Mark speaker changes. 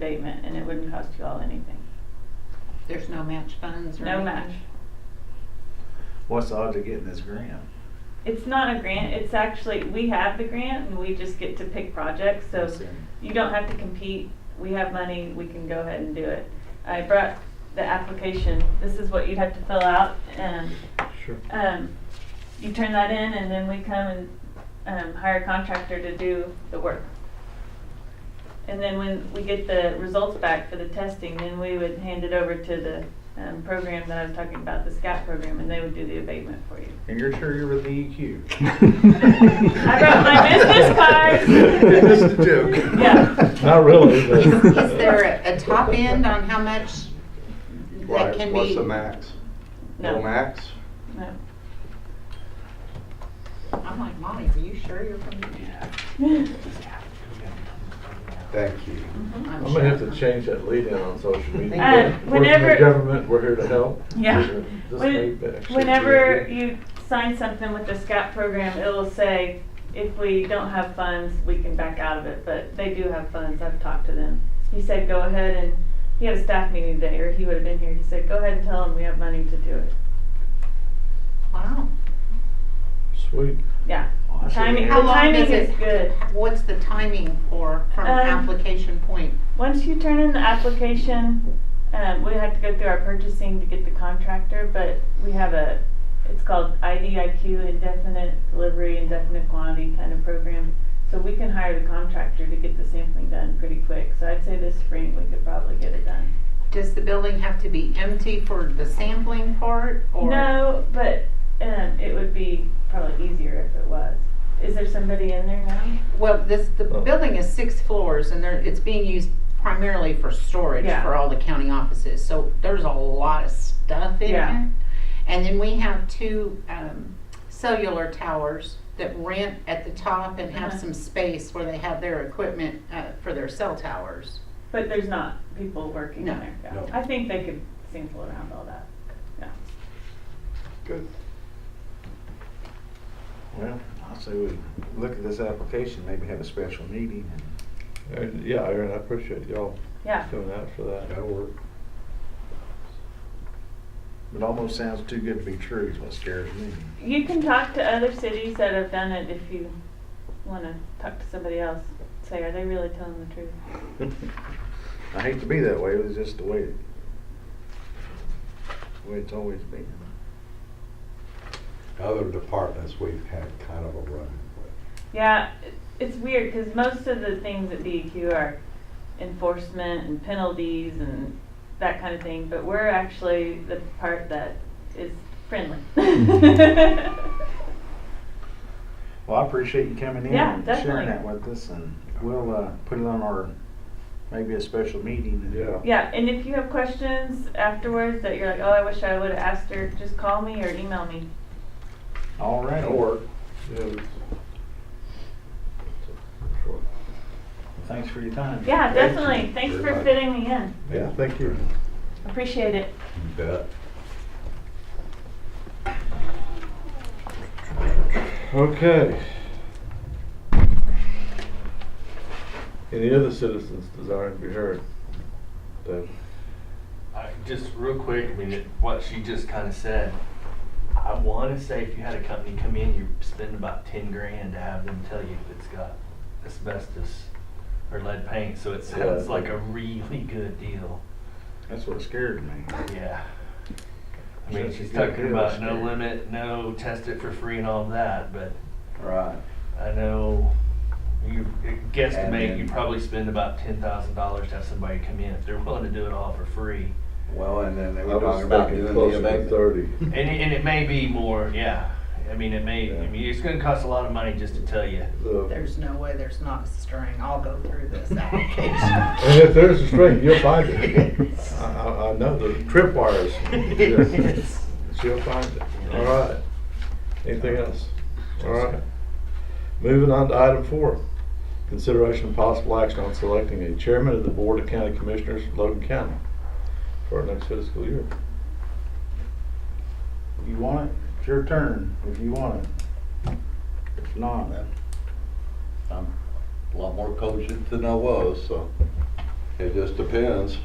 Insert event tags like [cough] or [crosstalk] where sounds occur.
Speaker 1: abatement and it wouldn't cost you all anything.
Speaker 2: There's no match funds or
Speaker 1: No
Speaker 2: anything?
Speaker 1: match.
Speaker 3: What's the odds of getting this grant?
Speaker 1: It's not a grant, it's actually, we have the grant and we just get to pick projects, so
Speaker 3: Let's see.
Speaker 1: you don't have to compete. We have money, we can go ahead and do it. I brought the application, this is what you'd have to fill out and
Speaker 4: Sure.
Speaker 1: um, you turn that in and then we come and, um, hire a contractor to do the work. And then when we get the results back for the testing, then we would hand it over to the, um, program that I was talking about, the SCAT program, and they would do the abatement for you.
Speaker 3: And you're sure you're with the E EQ?
Speaker 4: I
Speaker 1: brought my business
Speaker 2: [laughs]
Speaker 1: card.
Speaker 3: Just a joke.
Speaker 1: Yeah.
Speaker 4: Not really, but.
Speaker 5: [laughs]
Speaker 2: Is there a a top end on how much that
Speaker 5: Right,
Speaker 2: can be?
Speaker 5: What's the max? No
Speaker 1: No,
Speaker 5: max?
Speaker 1: no.
Speaker 2: I'm like, Monty, are you sure you're from?
Speaker 5: Thank you.
Speaker 4: I'm gonna have to change that lead in on social media.
Speaker 2: Uh,
Speaker 1: whenever-
Speaker 4: We're from the government, we're here to help.
Speaker 1: Yeah.
Speaker 4: This
Speaker 1: When-
Speaker 4: may actually be a
Speaker 1: Whenever
Speaker 4: good-
Speaker 1: you sign something with the SCAT program, it'll say, if we don't have funds, we can back out of it, but they do have funds, I've talked to them. He said, go ahead and, he had a staff meeting today, or he would have been here, he said, go ahead and tell them we have money to do it.
Speaker 2: Wow.
Speaker 4: Sweet.
Speaker 1: Yeah,
Speaker 3: Oh, I see.
Speaker 1: Timing.
Speaker 2: How
Speaker 1: The
Speaker 2: long does
Speaker 1: timing is
Speaker 2: it?
Speaker 1: good.
Speaker 2: What's the timing for, from
Speaker 1: Um,
Speaker 2: application point?
Speaker 1: once you turn in the application, um, we have to go through our purchasing to get the contractor, but we have a, it's called IDIQ, indefinite delivery, indefinite quantity kind of program. So we can hire the contractor to get the sampling done pretty quick, so I'd say this spring we could probably get it done.
Speaker 2: Does the building have to be empty for the sampling part or?
Speaker 1: No, but, um, it would be probably easier if it was. Is there somebody in there now?
Speaker 2: Well, this, the
Speaker 4: Oh.
Speaker 2: building is six floors and there, it's being used primarily for storage
Speaker 1: Yeah.
Speaker 2: for all the county offices, so there's a lot of stuff in
Speaker 1: Yeah.
Speaker 2: there. And then we have two, um, cellular towers that rent at the top and have
Speaker 1: Uh-huh.
Speaker 2: some space where they have their equipment, uh, for their cell towers.
Speaker 1: But there's not people working in there. yeah.
Speaker 5: No.
Speaker 1: I think they could sample around all that, yeah.
Speaker 5: Good.
Speaker 4: Well,
Speaker 3: I say we look at this application, maybe have a special meeting and.
Speaker 4: Aaron- yeah, Aaron, I appreciate y'all
Speaker 1: Yeah.
Speaker 4: coming out for that.
Speaker 5: That'll work.
Speaker 3: It almost sounds too good to be true is what scares me.
Speaker 1: You can talk to other cities that have done it if you want to talk to somebody else. Say, are they really telling the truth?
Speaker 3: I hate to be that way, but it's just the way, it- the way it's always been.
Speaker 5: Other departments we've had kind of a run with.
Speaker 1: Yeah, it- it's weird because most of the things at DEQ are enforcement and penalties and that kind of thing, but we're actually the part that is friendly. [laughs]
Speaker 3: Well, I appreciate you coming in
Speaker 1: Yeah,
Speaker 3: and
Speaker 1: definitely.
Speaker 3: sharing that with us and we'll, uh, put it on our, maybe a special meeting. and-
Speaker 4: Yeah.
Speaker 1: yeah, and if you have questions afterwards that you're like, oh, I wish I would have asked her, just call me or email me.
Speaker 3: All right.
Speaker 5: That'll work.
Speaker 4: Yeah, it's- it's-
Speaker 3: Thanks for your time.
Speaker 1: Yeah,
Speaker 5: Thank you
Speaker 1: definitely. Thanks
Speaker 5: very
Speaker 1: for
Speaker 5: much.
Speaker 1: fitting me in.
Speaker 4: Yeah, thank you.
Speaker 1: Appreciate it.
Speaker 5: You bet.
Speaker 4: Okay. Any other citizens desiring to be heard? David?
Speaker 6: I, just real quick, I mean, it- what she just kind of said, I want to say if you had a company come in, you spend about ten grand to have them tell you if it's got asbestos or lead paint, so it sounds
Speaker 4: Yeah.
Speaker 6: like a really good deal,
Speaker 3: That's what scared me.
Speaker 6: yeah. I mean,
Speaker 3: Sounds
Speaker 6: she's
Speaker 3: like a good
Speaker 6: talking
Speaker 3: deal,
Speaker 6: about no
Speaker 3: Steve.
Speaker 6: limit, no test it for free and all that, but
Speaker 3: Right.
Speaker 6: I know you it guesstimate
Speaker 3: Admin.
Speaker 6: you probably spend about ten thousand dollars to have somebody come in if they're willing to do it all for free.
Speaker 5: Well, and then they
Speaker 4: I was thinking closer to Thirty.
Speaker 6: And it, and it may be more, yeah. I mean, it may, I
Speaker 4: Yeah.
Speaker 6: mean, it's gonna cost a lot of money just to tell you.
Speaker 4: The-
Speaker 2: There's no way there's not a string, I'll go through
Speaker 4: [laughs]
Speaker 2: this
Speaker 4: And
Speaker 2: application. [laughs]
Speaker 4: if there's a string, you'll find it. I, I, I know the trip wires. [laughs] Yes. She'll find it. All right. Anything else? All right. Moving on to item four. Consideration and possible action on selecting a chairman of the Board of County Commissioners of Logan County for our next fiscal year.
Speaker 3: You want it? It's your turn if you want it. If not,
Speaker 5: I'm a lot more cogent than I was, so It just depends.